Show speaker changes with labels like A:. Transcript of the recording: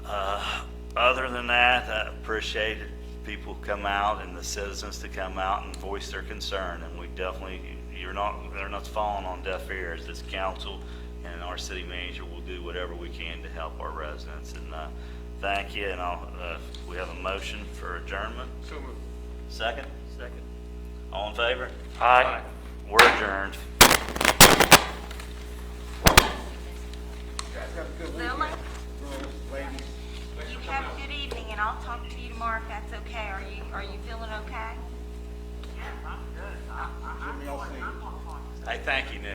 A: Uh, other than that, I appreciate it, people come out and the citizens to come out and voice their concern. And we definitely, you're not, they're not falling on deaf ears. This council and our city manager will do whatever we can to help our residents. And uh, thank you, and I'll, uh, we have a motion for adjournment.
B: So moved.
A: Second?
B: Second.
A: All in favor?
B: Aye.
A: We're adjourned.
B: Guys, have a good weekend.
C: Lily,
B: Girls, ladies.
C: you have a good evening, and I'll talk to you tomorrow if that's okay. Are you, are you feeling okay?
B: Jimmy, I'll see you.
A: Hey, thank you, Nick.